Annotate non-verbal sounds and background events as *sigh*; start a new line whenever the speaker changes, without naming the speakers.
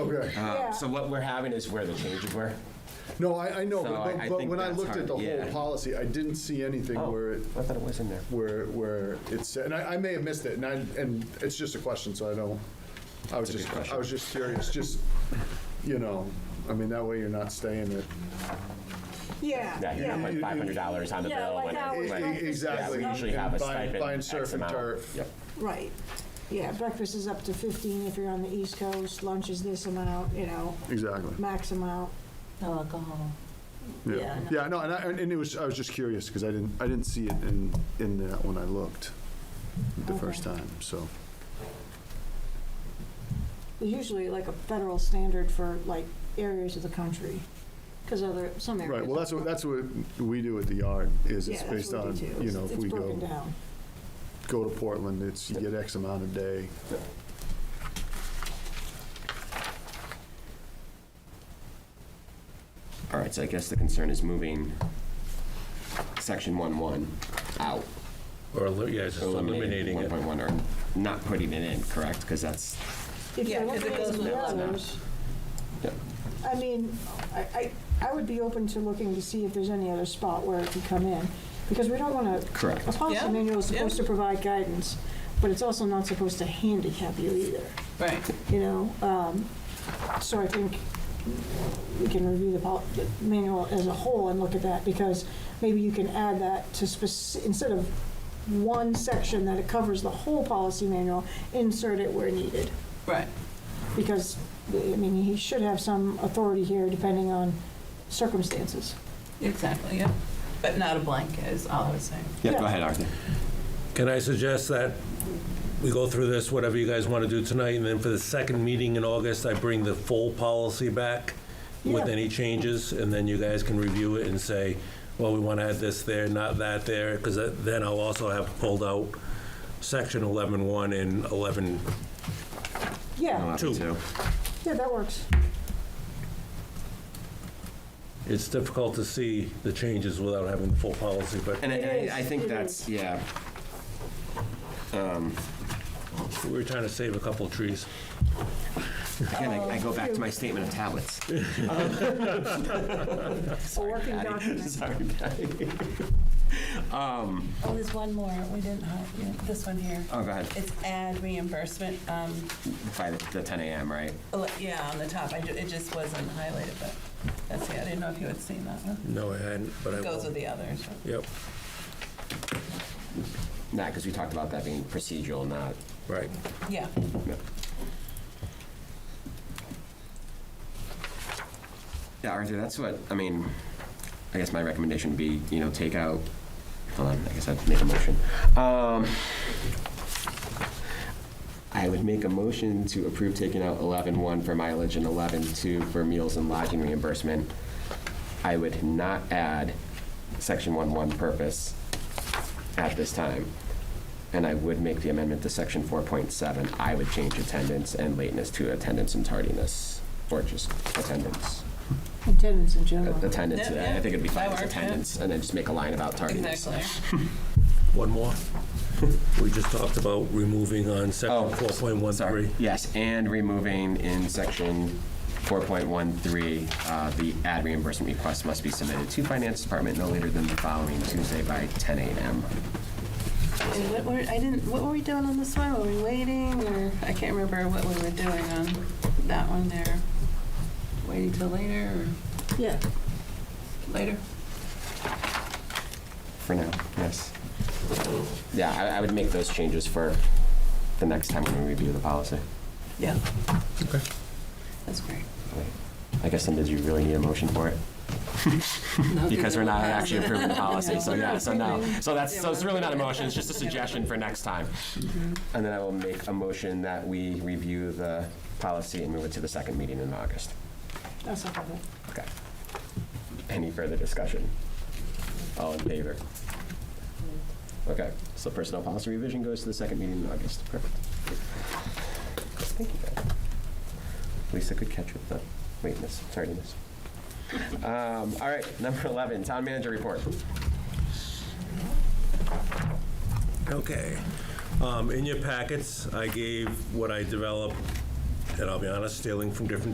Okay.
Um,
Yeah.
So what we're having is where the changes were.
No, I, I know,
So
but,
I- I
but
think
when I
that's
looked at
hard,
the whole
yeah. Oh.
policy, I didn't see anything where it,
I thought it was in there.
where, where it said, and I, I may have missed it, and I, and it's just a question, so I don't, I was
a good
just, I
question.
was just curious, just, you know, I mean, that way you're not staying at
Yeah,
Yeah, you're not
yeah.
like five hundred dollars on the
Yeah,
bill.
like
when it-
how it's
when-
like-
E- e- Exactly.
Yeah, we usually have a
And buying-
stipend.
Buying
X
surf and
amount.
turf.
Yep.
Right. Yeah, breakfast is up to 15 if you're on the East Coast, lunch is this amount, you know,
Exactly.
max amount.
No alcohol. Yeah, I know.
Yeah, no, and I, and it was, I was just curious, because I didn't, I didn't see it in, in that when I looked the first time, so.
There's usually like a federal standard for like areas of the country, because other, some areas.
Right, well, that's what, that's what we do at the yard, is
Yeah,
it's
that's
based
what we
on,
do.
you
It's-
know, if
it's
we
broken
go,
down.
go to Portland, it's, you get X amount a day.
All right, so I guess the concern is moving section one one out.
Or, eli- yeah, just eliminating
One
it.
point one or not putting it in, correct? Because that's,
If you
Yeah, 'cause it
eliminate
goes
the
with
that.
others,
yeah.
I mean, I, I, I would be open to looking to see if there's any other spot where it could come in, because we don't want to.
Correct.
A policy
Yeah,
manual is supposed
yeah.
to provide guidance, but it's also not supposed to handicap you either,
Right.
you know? Um, So I think we can review the pol- the manual as a whole and look at that, because maybe you can add that to spec, instead of one section that it covers the whole policy manual, insert it where needed
Right.
because, I mean, he should have some authority here depending on circumstances.
Exactly, yeah. But not a blanket is all I was saying.
Yeah, go ahead, Arthur.
Can I suggest that we go through this, whatever you guys want to do tonight, and then for the second meeting in August, I bring the full policy back with
Yeah.
any changes, and then you guys can review it and say, well, we want to add this there, not that there, because then I'll also have pulled out section 11.1 and 11,
Yeah,
Two.
yeah, that works.
it's difficult to see the changes without having the full policy, but
And I-
It
and I, I
is,
think
it
that's,
is.
yeah,
we were trying to save a couple trees.
again, I I go back to my statement of tablets.
A working document.
*laughs* Sorry, Patty. *laughs* Um,
Oh, there's one more. We didn't, uh, yeah, this one here.
Oh, go ahead,
It's ad reimbursement. Um,
by the the ten AM, right?
ele- yeah, on the top. I, ju- it just wasn't highlighted, but that's, yeah, I didn't know if you had seen that one.
No, I hadn't, but I will.
Goes with the others.
Yep,
Nah, because we talked about that being procedural, not
right.
Yeah.
Yeah, Arthur, that's what, I mean, I guess my recommendation would be, you know, take out, hold on, I guess I'd make a motion. Um, I would make a motion to approve taking out 11-1 for mileage and 11-2 for meals and lodging reimbursement. I would not add section 1-1 purpose at this time. And I would make the amendment to section 4.7. I would change attendance and lateness to attendance and tardiness, or just attendance
Attendance in general.
attendance
Yeah,
today. I
yeah.
think it'd be
That
fine as
works, yeah.
attendance, and then just make a line about tardiness.
Exactly.
One more. *laughs* We just talked about removing on section
Oh,
4.13.
Sorry. Yes, and removing in section 4.13, uh, the ad reimbursement request must be submitted to Finance Department no later than the following Tuesday by 10 a.m.
And what were, I didn't, what were we doing on this one? Were we waiting or, I can't remember what we were doing on that one there. Waiting till later or
Yeah,
later?
For now, yes. Yeah, I, I would make those changes for the next time when we review the policy.
Yeah. Okay. That's great.
I guess then, did you really need a motion for it? Because we're not actually approving the policy, so yeah, so no. So that's, so it's really not a motion, it's just a suggestion for next time. And then I will make a motion that we review the policy and move it to the second meeting in August.
that's not bad.
Okay. Any further discussion? All in favor? Okay, so personnel policy revision goes to the second meeting in August. Perfect. Thank you. guys. Lisa, good catch with the lateness, tardiness. Um, All right, number 11, town manager report.
Okay. Um, In your packets, I gave what I developed and I'll be honest, stealing from different